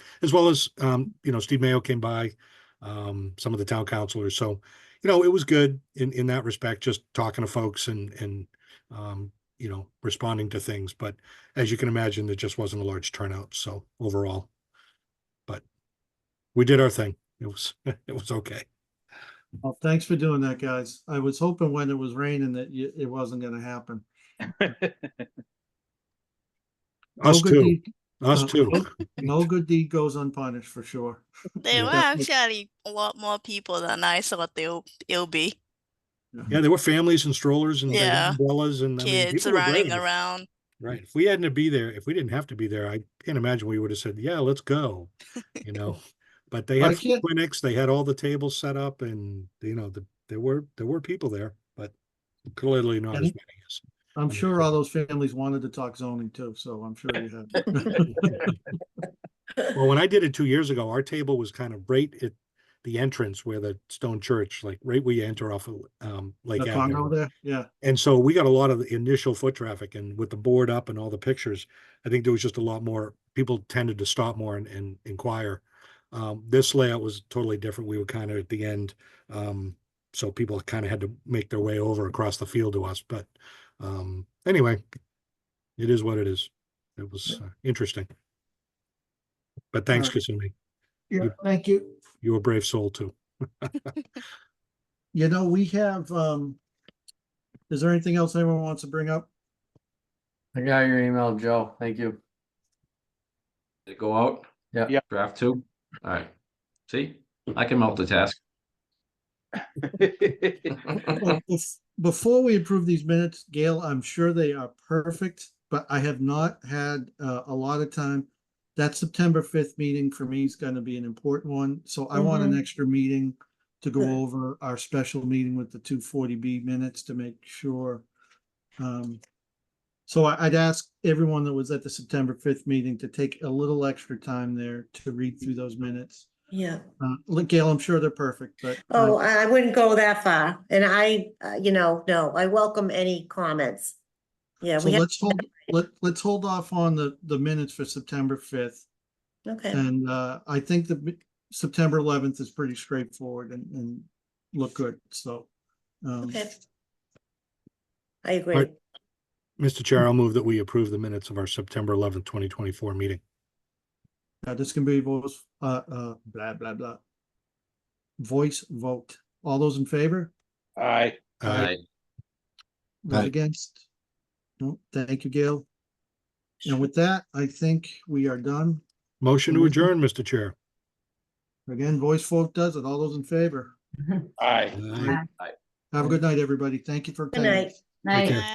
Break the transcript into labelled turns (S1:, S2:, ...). S1: as well as, um, you know, Steve Mayo came by, um, some of the town councilors. So, you know, it was good in, in that respect, just talking to folks and, and, um, you know, responding to things. But as you can imagine, there just wasn't a large turnout. So overall, but we did our thing. It was, it was okay.
S2: Well, thanks for doing that, guys. I was hoping when it was raining that you- it wasn't gonna happen. No
S1: Us
S2: good
S1: too,
S2: deed-
S1: us
S2: uh,
S1: too.
S2: No good deed goes unpunished, for sure.
S1: Yeah.
S3: There were actually a lot more people than I thought there'll it'll be.
S1: Yeah, there were families and strollers and they had
S3: Yeah.
S1: umbrellas and. I mean,
S3: Kids
S1: people were
S3: running
S1: brave.
S3: around.
S1: Right. If we hadn't to be there, if we didn't have to be there, I can't imagine we would have said, yeah, let's go, you know? But they
S2: I
S1: had
S2: can't-
S1: clinics, they had all the tables set up and, you know, the, there were, there were people there, but clearly not as
S2: And-
S1: many as.
S2: I'm sure all those families wanted to talk zoning too, so I'm sure you had.
S1: Well, when I did it two years ago, our table was kind of right at the entrance where the stone church, like right where you enter off of, um, Lake
S2: The Congo
S1: Avenue.
S2: there, yeah.
S1: And so we got a lot of the initial foot traffic and with the board up and all the pictures, I think there was just a lot more, people tended to stop more and, and inquire. Um, this layout was totally different. We were kind of at the end. Um, so people kind of had to make their way over across the field to us, but, um, anyway, it is what it is. It was uh, interesting. But thanks,
S2: Alright.
S1: Kasumi.
S2: Yeah, thank you.
S1: You're a brave soul too.
S2: You know, we have, um, is there anything else anyone wants to bring up?
S4: I got your email, Joe. Thank you.
S5: Did it go out?
S4: Yeah.
S6: Yeah.
S5: Draft two? Alright. See, I can multitask.
S2: Well, bef- Before we approve these minutes, Gail, I'm sure they are perfect, but I have not had uh, a lot of time. That September fifth meeting for me is gonna be an important one, so I want an extra meeting to go
S7: Mm-hmm. Good.
S2: over our special meeting with the two forty B minutes to make sure. um, So I- I'd ask everyone that was at the September fifth meeting to take a little extra time there to read through those minutes.
S7: Yeah,
S2: Uh, look, Gail, I'm sure they're perfect, but. uh,
S7: oh, I I wouldn't go that far, and I, uh, you know, no, I welcome any comments. Yeah,
S2: So
S7: we have,
S2: let's hold, let, let's hold off on the, the minutes for September fifth.
S7: okay,
S2: And, uh, I think the mi- September eleventh is pretty straightforward and, and look good, so. Um,
S7: okay. I agree.
S1: Mr. Chair, I'll move that we approve the minutes of our September eleventh, twenty twenty-four meeting.
S2: yeah, this can be voice, uh, uh, blah, blah, blah. Voice vote. All those in favor?
S6: Aye.
S1: Uh,
S5: Alright,
S2: Those
S1: Aye.
S2: against? No, thank you, Gail. And with that, I think we are done.
S1: motion to
S2: Motion.
S1: adjourn, Mr. Chair.
S2: Again, voice vote does it. All those in favor?
S6: Aye.
S1: Aye.
S2: Have a good night, everybody. Thank you for.
S7: Good
S2: attending.
S7: night.
S1: Take care.
S3: Night.